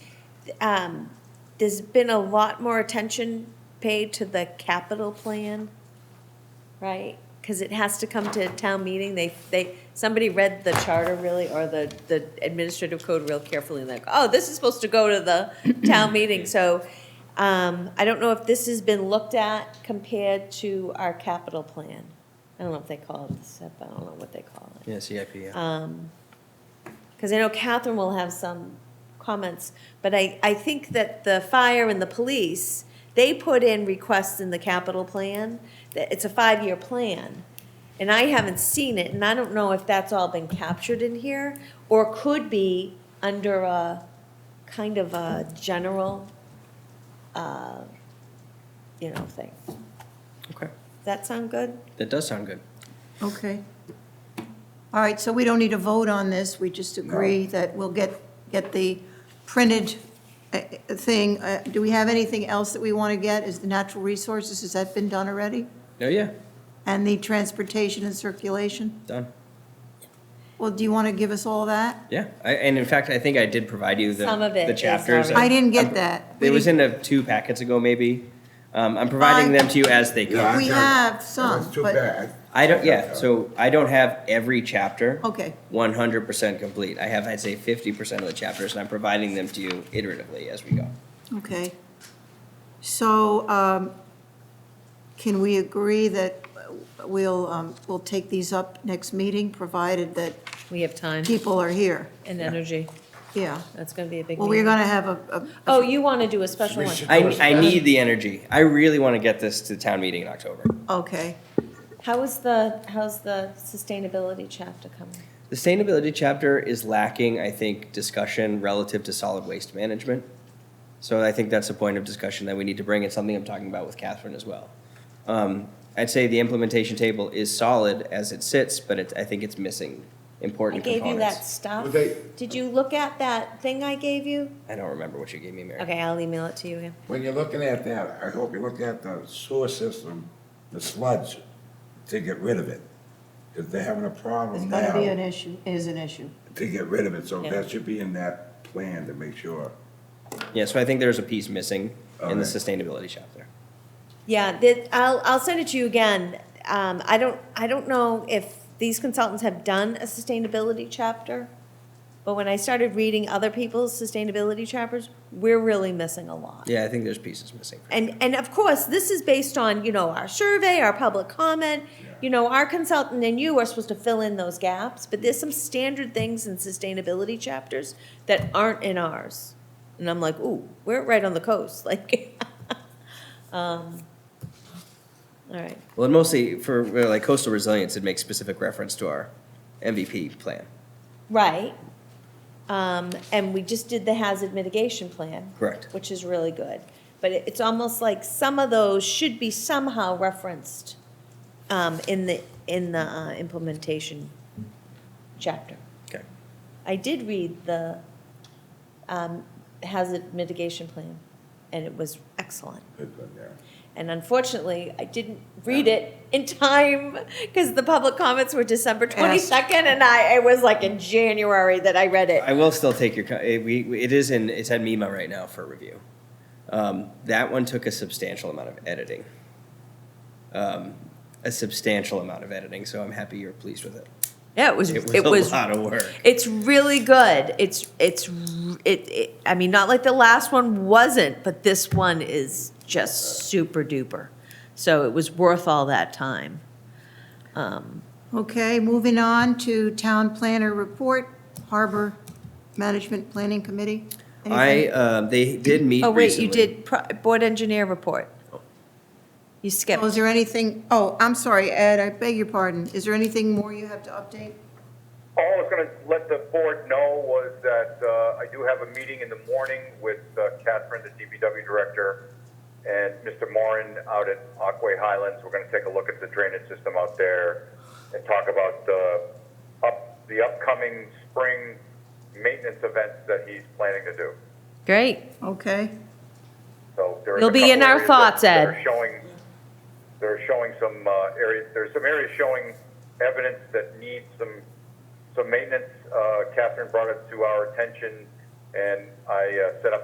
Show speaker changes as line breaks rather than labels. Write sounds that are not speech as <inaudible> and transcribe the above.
um, there's been a lot more attention paid to the capital plan, right? Because it has to come to town meeting, they, they, somebody read the charter really, or the, the administrative code real carefully, and like, oh, this is supposed to go to the town meeting, so, um, I don't know if this has been looked at compared to our capital plan. I don't know if they call it the SIP, I don't know what they call it.
Yeah, CIP, yeah.
Um, Because I know Catherine will have some comments, but I, I think that the fire and the police, they put in requests in the capital plan, that it's a five-year plan. And I haven't seen it, and I don't know if that's all been captured in here, or could be under a kind of a general, uh, you know, thing. Does
Okay,
that sound good?
that does sound good.
Okay. All right, so we don't need a vote on this, we just agree that we'll get, get the printed uh, uh, thing. Uh, Do we have anything else that we want to get? Is the natural resources, has that been done already?
Oh, yeah,
And the transportation and circulation?
done.
Well, do you want to give us all that?
Yeah, I, and in fact, I think I did provide you the,
Some of it
the
is
chapters.
already-
I didn't get that.
It was in a, two packets ago, maybe. Um, I'm providing
I-
them to you as they
Yeah.
come.
We have some,
That's too
but-
bad.
I don't, yeah, so I don't have every chapter.
Okay.
One hundred percent complete. I have, I'd say, fifty percent of the chapters, and I'm providing them to you iteratively as we go.
Okay. So um, can we agree that we'll, um, we'll take these up next meeting, provided that
We have time
people are here?
and energy,
Yeah.
that's gonna be a big
Well, we're
meeting.
going to have a, a-
Oh, you wanna do a special
We
one?
should-
I, I need the energy. I really want to get this to town meeting in October.
okay,
How is the, how's the sustainability chapter coming?
The Sustainability chapter is lacking, I think, discussion relative to solid waste management. So I think that's a point of discussion that we need to bring, and something I'm talking about with Catherine as well. Um, I'd say the implementation table is solid as it sits, but it, I think it's missing
I
important
gave you that
components.
stuff.
Would they-
Did you look at that thing I gave you?
I don't remember what you gave me, Mary.
Okay, I'll email it to you again.
When you're looking at that, I hope you're looking at the sewer system, the sludge, to get rid of it. Because they're having a
it's
problem
going to be an
now
issue, is an issue.
to get rid of it, so
Yeah.
that should be in that plan to make sure.
Yeah, so I think there's a piece missing in the
Okay.
sustainability chapter.
Yeah, that, I'll, I'll send it to you again. Um, I don't, I don't know if these consultants have done a sustainability chapter, but when I started reading other people's sustainability chapters, we're really missing a lot.
Yeah, I think there's pieces missing.
And, and of course, this is based on, you know, our survey, our public comment, you know, our consultant and you are supposed to fill in those gaps, but there's some standard things in sustainability chapters that aren't in ours. And I'm like, ooh, we're right on the coast, <laughs> like, um, all right,
Well, and mostly for uh, like coastal resilience, it makes specific reference to our MVP plan.
right. Um, and we just did the hazard mitigation plan.
Correct.
Which is really good, but it- it's almost like some of those should be somehow referenced um, in the, in the uh, implementation chapter.
Okay.
I did read the um, hazard mitigation plan, and it was excellent.
Good, good, yeah.
And unfortunately, I didn't read it in time because the public comments were December 22nd, and I, it was like in January that I read it.
I will still take your, co- it, we, we- it is in, it's at MIMA right now for review. Um, that one took a substantial amount of editing. Um, a substantial amount of editing, so I'm happy you're pleased with it.
Yeah, it was,
It was
it was
a lot of work.
It's really good. It's it's r- it, it. I mean, not like the last one wasn't, but this one is just super duper. So it was worth all that time. Um,
Okay, moving on to town planner report, Harbor Management Planning Committee.
I,
Anything?
um, they did meet
oh wait,
recently.
you did pro- board engineer report. You skipped.
Was there anything, oh, I'm sorry, Ed, I beg your pardon. Is there anything more you have to update?
All I was going to let the board know was that uh, I do have a meeting in the morning with uh, Catherine, the DPW director, and Mr. Moran out at Aquay Highlands. We're going to take a look at the drainage system out there and talk about uh, up, the upcoming spring maintenance events that he's planning to do.
Great.
Okay,
So there is
You'll
a
be
couple
in our
areas that-
thoughts,
that
Ed.
are Showing, they're showing some uh, areas, there's some areas showing evidence that needs some, some maintenance. Uh, Catherine brought it to our attention, and I uh, set up